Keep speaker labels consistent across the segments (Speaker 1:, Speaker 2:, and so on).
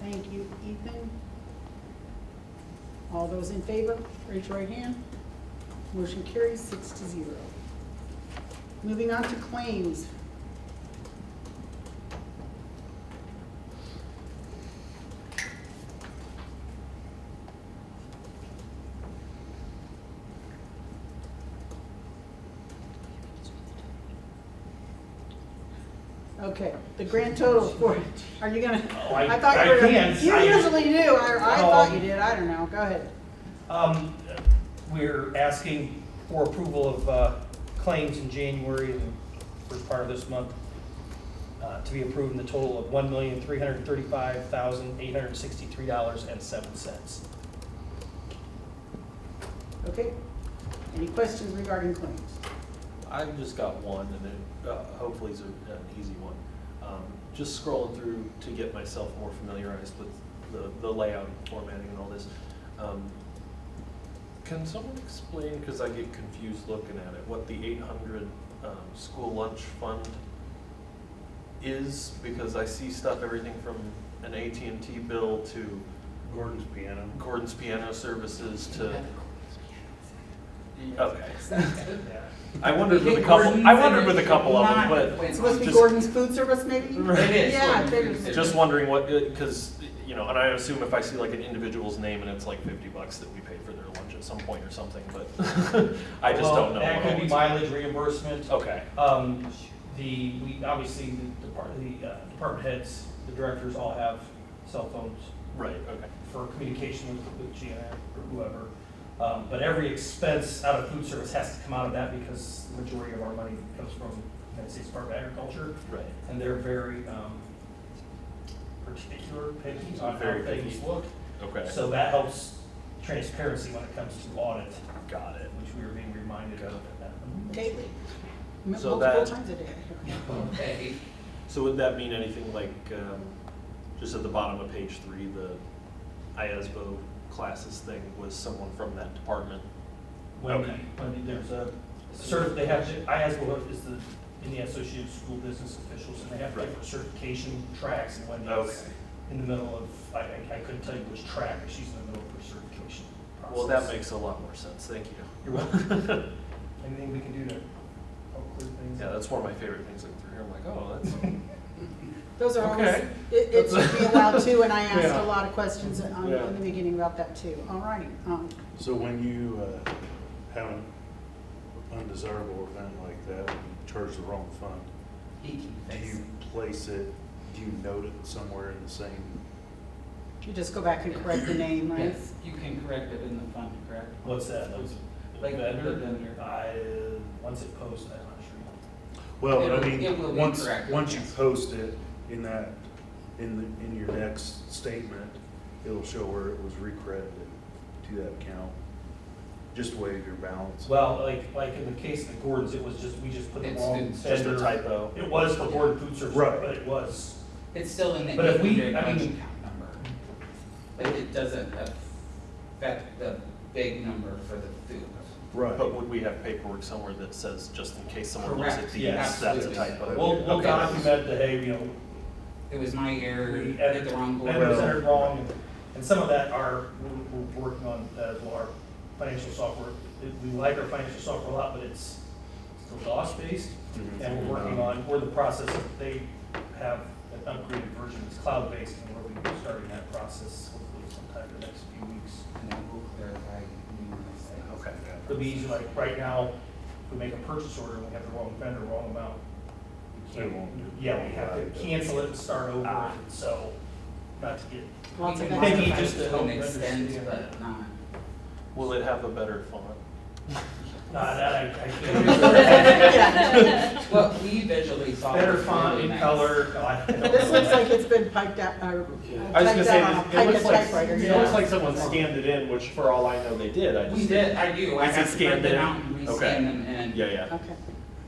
Speaker 1: Thank you, Ethan. All those in favor, raise your right hand. Motion carries six to zero. Moving on to claims. Okay, the grand total for, are you gonna?
Speaker 2: Oh, I-
Speaker 1: thought you
Speaker 2: I
Speaker 1: were-
Speaker 2: can't.
Speaker 1: You
Speaker 2: I-
Speaker 1: usually do, I, I
Speaker 2: Oh.
Speaker 1: thought you did, I don't know, go ahead.
Speaker 2: Um, We're asking for approval of uh, claims in January and the first part of this month uh, to be approved in the total of $1,335,863.07.
Speaker 1: Okay, any questions regarding claims?
Speaker 3: I've just got one, and it, uh, hopefully it's a- an easy one. Um, Just scrolling through to get myself more familiarized with the, the layout and formatting and all this. Um, Can someone explain, because I get confused looking at it, what the eight hundred um, school lunch fund is? Because I see stuff, everything from an at and T bill to
Speaker 4: Gordon's piano.
Speaker 3: Gordon's Piano Services to, okay.
Speaker 2: Yeah.
Speaker 3: I wondered
Speaker 5: We
Speaker 3: with a
Speaker 5: get
Speaker 3: couple,
Speaker 5: Gordon's
Speaker 3: I wondered
Speaker 5: and
Speaker 3: with a
Speaker 5: it's
Speaker 3: couple of them,
Speaker 5: not
Speaker 3: but.
Speaker 5: Quince.
Speaker 1: It's supposed to be
Speaker 3: Just-
Speaker 1: Gordon's food service, maybe?
Speaker 3: Right.
Speaker 5: It is
Speaker 1: Yeah,
Speaker 5: Gordon's
Speaker 1: figures.
Speaker 5: Food Service.
Speaker 3: Just wondering what, because, you know, and I assume if I see like an individual's name and it's like fifty bucks that we paid for their lunch at some point or something, but I just
Speaker 2: Well,
Speaker 3: don't know.
Speaker 2: That
Speaker 3: what
Speaker 2: could be
Speaker 3: all
Speaker 2: mileage reimbursement.
Speaker 3: these- Okay,
Speaker 2: Um, The, we, obviously, the depart- the uh, department heads, the directors all have cell phones
Speaker 3: right, okay.
Speaker 2: for communication with with Gina or whoever. Um, But every expense out of food service has to come out of that because the majority of our money comes from United States Department of Agriculture.
Speaker 3: Right.
Speaker 2: And they're very um, particular, picky on how
Speaker 3: Very
Speaker 2: things
Speaker 3: picky.
Speaker 2: look.
Speaker 3: Okay.
Speaker 2: So that helps transparency when it comes to audit,
Speaker 3: Got it.
Speaker 2: which we were being reminded of.
Speaker 1: Daily. M-
Speaker 3: So
Speaker 1: Multiple
Speaker 3: that-
Speaker 1: times a day.
Speaker 5: Okay.
Speaker 3: So would that mean anything like, um, just at the bottom of page three, the E IASBO classes thing was someone from that department?
Speaker 2: When,
Speaker 3: Okay.
Speaker 2: when there's a, cert, they have, to- IASBO is the, in the Associated School Business Officials, and they have
Speaker 3: Right.
Speaker 2: different certification tracks, and when that's in the middle of, I, I I couldn't tell you which track, but she's in the middle of her certification process.
Speaker 3: Well, that makes a lot more sense, thank you.
Speaker 2: You're welcome. Anything we can do to help clear things
Speaker 3: Yeah,
Speaker 2: up?
Speaker 3: that's one of my favorite things looking through here, I'm like, oh, that's,
Speaker 1: Those are always,
Speaker 3: Okay.
Speaker 1: it, it should be allowed too, and I asked
Speaker 3: Yeah.
Speaker 1: a lot of questions um,
Speaker 3: Yeah.
Speaker 1: in the beginning about that too. All righty, um,
Speaker 4: So when you uh, have an undesirable event like that, and you charge the wrong fund, do you place it, do you note it somewhere in the same?
Speaker 1: you just go back and correct the name, right?
Speaker 5: Yes, you can correct it in the fund, correct?
Speaker 2: What's that?
Speaker 5: Like the
Speaker 2: Vendor? Uh,
Speaker 5: vendor.
Speaker 2: I, once it posts, I'm not sure.
Speaker 4: Well, I
Speaker 5: It'll- it will
Speaker 4: mean,
Speaker 5: be
Speaker 4: once,
Speaker 5: corrected,
Speaker 4: once you
Speaker 5: yes.
Speaker 4: post it in that, in the, in your next statement, it'll show where it was recredited to that account, just waive your balance.
Speaker 2: Well, like, like in the case of the Gordons, it was just, we just put the
Speaker 5: It's-
Speaker 2: wrong
Speaker 5: it's
Speaker 3: just a
Speaker 2: vendor.
Speaker 3: typo.
Speaker 2: It was the Gordon Food Service,
Speaker 4: Right.
Speaker 2: but it was,
Speaker 5: It's still in the
Speaker 2: But if we-
Speaker 5: eight hundred
Speaker 2: I
Speaker 5: lunch
Speaker 2: mean-
Speaker 5: account number. But it doesn't affect the big number for the food.
Speaker 4: Right.
Speaker 3: But would we have paperwork somewhere that says, just in case someone looks at
Speaker 5: Correct,
Speaker 3: these,
Speaker 2: yes,
Speaker 3: that's a
Speaker 5: absolutely.
Speaker 3: typo?
Speaker 2: we'll, we'll
Speaker 3: Okay.
Speaker 2: document the, hey, you know,
Speaker 5: It was my error,
Speaker 2: we
Speaker 5: did
Speaker 2: edit
Speaker 5: the wrong
Speaker 2: Edit was
Speaker 4: Well-
Speaker 5: board.
Speaker 2: entered wrong, and- and some of that are, we're, we're working on, uh, well, our financial software. It- We like our financial software a lot, but it's still DOS-based,
Speaker 5: Mm-hmm.
Speaker 4: Mhm.
Speaker 2: and we're working
Speaker 4: Mhm.
Speaker 2: on, we're in the process of, they have an upgraded version, it's cloud-based, and we'll be starting that process hopefully sometime in the next few weeks.
Speaker 5: And it will clarify numerous things.
Speaker 3: Okay.
Speaker 2: It'll be easy, like, right now, if we make a purchase order, and we have the wrong vendor, wrong amount. we
Speaker 4: It
Speaker 2: can't.
Speaker 4: won't do-
Speaker 2: Yeah, we have
Speaker 4: Right. Ah.
Speaker 2: to cancel it and start over, so, not to get
Speaker 1: Lots
Speaker 5: We
Speaker 1: of
Speaker 5: can
Speaker 1: extra
Speaker 2: Thank you,
Speaker 5: modify
Speaker 2: just
Speaker 5: it
Speaker 2: to
Speaker 5: to an
Speaker 2: help
Speaker 5: extent,
Speaker 2: understand.
Speaker 5: but not.
Speaker 3: Will it have a better font?
Speaker 2: Nah, that I, I can't.
Speaker 1: Yeah.
Speaker 5: What we visually saw.
Speaker 2: Better
Speaker 5: was
Speaker 2: font
Speaker 5: really
Speaker 2: in
Speaker 5: nice.
Speaker 2: color. No, I don't know.
Speaker 1: This looks like it's been piped out, uh,
Speaker 3: I was
Speaker 1: typed
Speaker 3: gonna say,
Speaker 1: out on a
Speaker 3: it- it
Speaker 1: pipe-
Speaker 3: looks like,
Speaker 1: typewriter,
Speaker 3: it
Speaker 1: yeah.
Speaker 3: looks like someone scanned it in, which for all I know they did, I
Speaker 5: We
Speaker 3: just.
Speaker 5: did, I do,
Speaker 3: Is
Speaker 5: I
Speaker 3: it
Speaker 5: have to print
Speaker 3: scanned
Speaker 5: them
Speaker 3: in?
Speaker 5: out and
Speaker 3: Okay.
Speaker 5: re-scan them in.
Speaker 3: Yeah, yeah,
Speaker 1: Okay.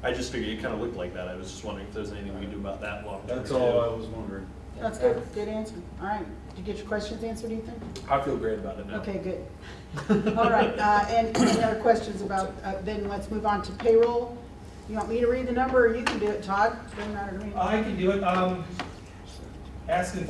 Speaker 3: I just figured it kinda looked like that, I was just wondering if there's anything we can do about that long term.
Speaker 4: That's all I was wondering.
Speaker 1: That's good, good answer. All right, did you get your questions answered, Ethan?
Speaker 3: I feel great about it now.
Speaker 1: Okay, good. All right, uh, and any other questions about, uh, then let's move on to payroll. You want me to read the number, or you can do it, Todd? Doesn't matter to me.
Speaker 2: I can do it, um, asking